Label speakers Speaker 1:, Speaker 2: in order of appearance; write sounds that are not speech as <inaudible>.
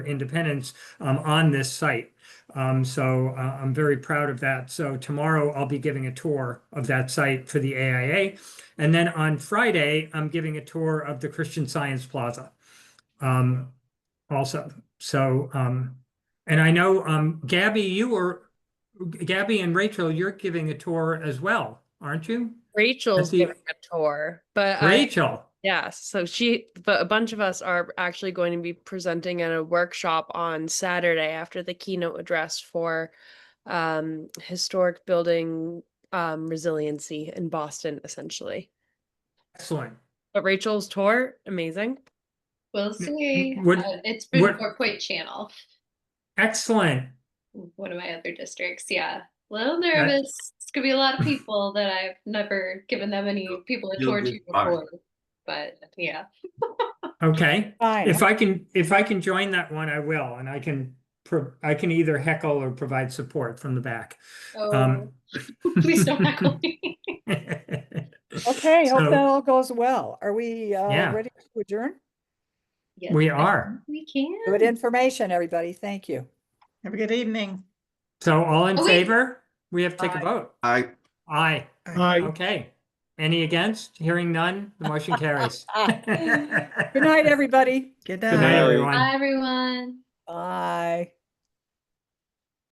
Speaker 1: Independence um, on this site. Um, so uh, I'm very proud of that. So tomorrow I'll be giving a tour of that site for the AIA. And then on Friday, I'm giving a tour of the Christian Science Plaza. Um, also, so, um, and I know, um, Gabby, you were, Gabby and Rachel, you're giving a tour as well, aren't you?
Speaker 2: Rachel's
Speaker 1: the-
Speaker 2: giving a tour, but I,
Speaker 1: Rachel,
Speaker 2: yeah, so she, but a bunch of us are actually going to be presenting at a workshop on Saturday after the keynote address for um, historic building um, resiliency in Boston, essentially.
Speaker 1: excellent.
Speaker 2: But Rachel's tour, amazing.
Speaker 3: We'll see.
Speaker 1: would-
Speaker 3: Uh, it's been
Speaker 1: would-
Speaker 3: Four Point Channel,
Speaker 1: Excellent.
Speaker 3: one of my other districts. Yeah, a little nervous. It's gonna be a lot of people that I've never given them any people a
Speaker 4: you'll
Speaker 3: tour
Speaker 4: do
Speaker 3: to
Speaker 4: fine.
Speaker 3: before. But yeah,
Speaker 1: Okay.
Speaker 5: Fine.
Speaker 1: If I can, if I can join that one, I will, and I can, pro- I can either heckle or provide support from the back.
Speaker 3: oh,
Speaker 1: Um,
Speaker 3: <laughs>
Speaker 1: <laughs>
Speaker 3: please don't heckle me.
Speaker 5: Okay,
Speaker 1: So-
Speaker 5: hope that all goes well. Are we uh,
Speaker 1: Yeah.
Speaker 5: ready to adjourn?
Speaker 3: <laughs> Yes,
Speaker 1: We
Speaker 3: I
Speaker 1: are.
Speaker 3: think We can.
Speaker 5: Good information, everybody. Thank you.
Speaker 6: Have a good evening.
Speaker 1: So all in
Speaker 3: Oh, wait.
Speaker 1: favor? We have to take a
Speaker 6: Aye.
Speaker 1: vote.
Speaker 4: I,
Speaker 1: Aye.
Speaker 7: Aye.
Speaker 1: Okay. Any against? Hearing none, the motion
Speaker 3: <laughs>
Speaker 1: carries. <laughs>
Speaker 5: Good night, everybody.
Speaker 6: Good
Speaker 1: Good night,
Speaker 6: night.
Speaker 1: everyone.
Speaker 3: Bye, everyone.
Speaker 5: Bye.